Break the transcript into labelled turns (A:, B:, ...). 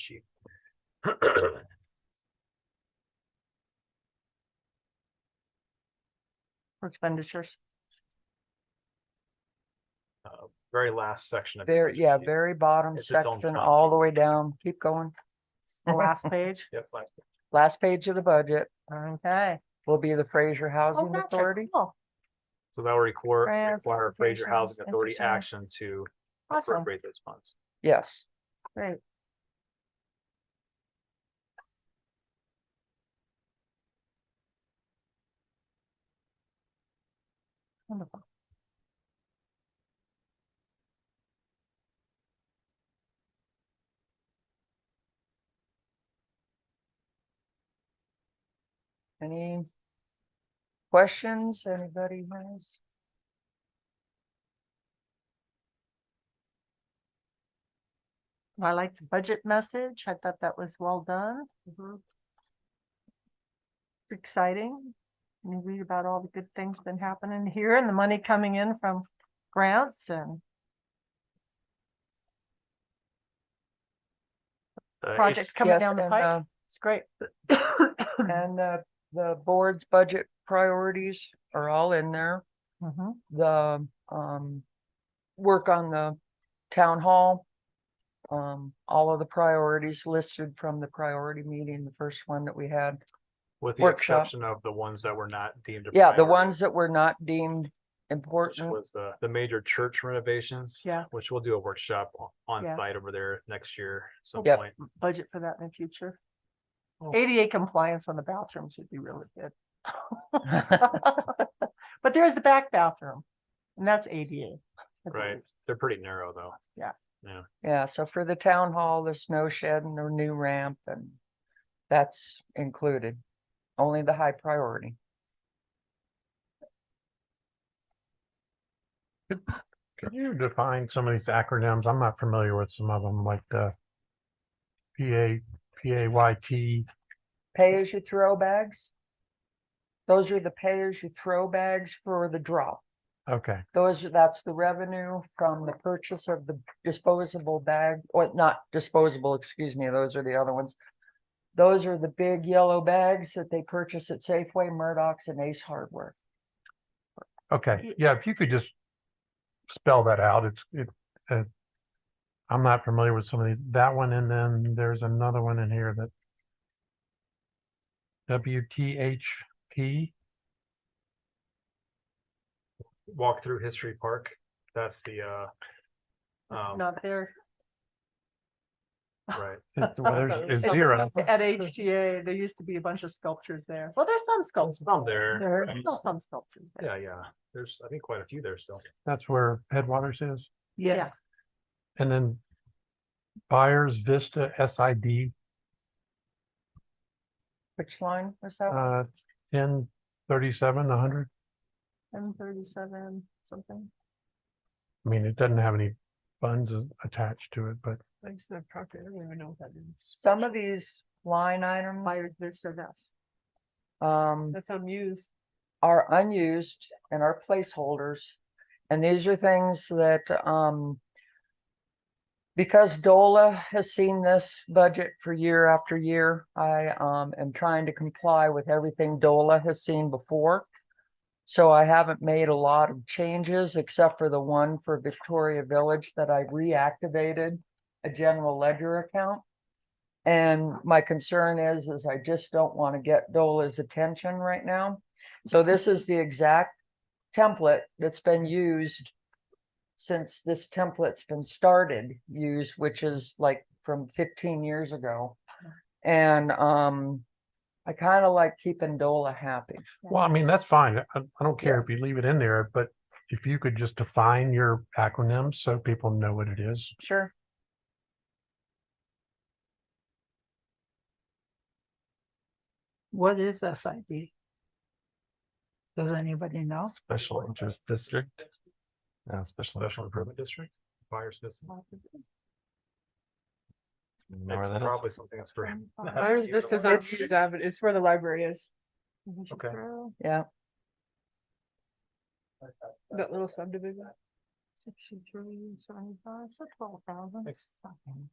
A: sheet.
B: for expenditures.
A: Uh, Very last section of. the
C: Very, yeah,
A: sheet.
C: very bottom
A: It's its own
C: section,
A: copy.
C: all the way down. Keep going.
B: The last page.
A: Yep, last.
C: Last page of the budget
B: Okay.
C: will be the Fraser
B: Oh,
C: Housing
B: gotcha.
C: Authority.
B: Cool.
A: So that will require,
B: Grants,
A: require Fraser
B: applications,
A: Housing Authority
B: interest only.
A: action to
B: Awesome.
A: appropriate those funds.
C: Yes.
B: Great. Wonderful.
C: Any questions anybody has?
B: I like the budget message. I thought that was well done. It's Exciting. You read about all the good things been happening here and the money coming in from grants and
A: Uh, if-
B: projects coming
C: Yes,
B: down the
C: and,
B: pipe.
C: uh,
B: It's great.
C: And the, the board's budget priorities are all in there.
B: Mhm.
C: The, um, work on the town hall. Um, all of the priorities listed from the priority meeting, the first one that we had.
A: With the
C: workshop.
A: exception of the ones that were not deemed. a
C: Yeah, the
A: priority,
C: mm-hmm. ones that were not deemed
A: Which
C: important.
A: was the, the major church renovations.
B: Yeah.
A: Which we'll do a workshop o- on
B: Yeah.
A: site over there next year at some
C: Yep.
A: point.
B: budget for that in the future.
A: Oh.
B: ADA compliance on the bathrooms would be really good. But there is the back bathroom, and that's ADA. I
A: Right.
B: believe.
A: They're pretty narrow though.
C: Yeah, so for the town hall, the snow shed and the new ramp and that's included. Only the high priority.
D: Can you define some of these acronyms? I'm not familiar with some of them, like the P A, P A Y T.
C: Pay as you throw bags. Those are the pay as you throw bags for the drop.
D: Okay,
C: Those, are- that's the revenue from the purchase of the disposable bag, or not disposable, excuse me, those are the other ones. Those are the big yellow bags that they purchase at Safeway, Murdoch's and Ace Hardware.
D: okay. Yeah, if you could just spell that out, it's, it, uh, I'm not familiar with some of these, that one, and then there's another one in here that W T H P.
A: Walk through History Park. That's the, uh.
B: It's
A: Um,
B: Not there.
A: right.
D: It's, well, there's, it's
B: It's
D: zero.
B: At HTA, there used to be a bunch of sculptures there. Well, there's some sculptures.
A: Some there.
B: There's
A: um,
B: still some sculptures there.
A: Yeah, yeah. There's, I think quite a few there still.
D: That's where Headwaters is.
B: Yes.
D: And then Buyers Vista S I D,
C: Which line was that? one?
D: uh, ten thirty-seven, a hundred.
B: M thirty-seven, something.
D: I mean, it doesn't have any funds as- attached to it, but
B: Thanks to the property. I don't even know what that is.
C: Some of these line items.
B: Fire, there's so that's,
C: um,
B: that's on Muse.
C: are unused and are placeholders. And these are things that, um, because DOLA has seen this budget for year after year, I, um, am trying to comply with everything DOLA has seen before. So I haven't made a lot of changes except for the one for Victoria Village that I reactivated a general ledger account. And my concern is, is I just don't want to get DOLA's attention right now. So this is the exact template that's been used since this template's been started, used, which is like from fifteen years ago. And, um, I kind of like keeping Dola happy.
D: well, I mean, that's fine. I, I don't care if you leave it in there, but if you could just define your acronyms so people know what it is.
C: Sure.
E: What is SID? Does anybody know?
F: Special interest district. Uh, special.
A: Special
F: improvement.
A: Improvement District, Buyers Vista.
F: Know
A: It's
F: where that is?
A: probably something that's for.
G: Ours Vista's on
C: It's-
G: Hughes
B: um,
G: Avenue. It's where the library is,
A: Okay.
C: Yeah.
G: that little subdivision.
B: Sixty-three, seventy-five, so twelve thousand.
A: Thanks.
B: Something.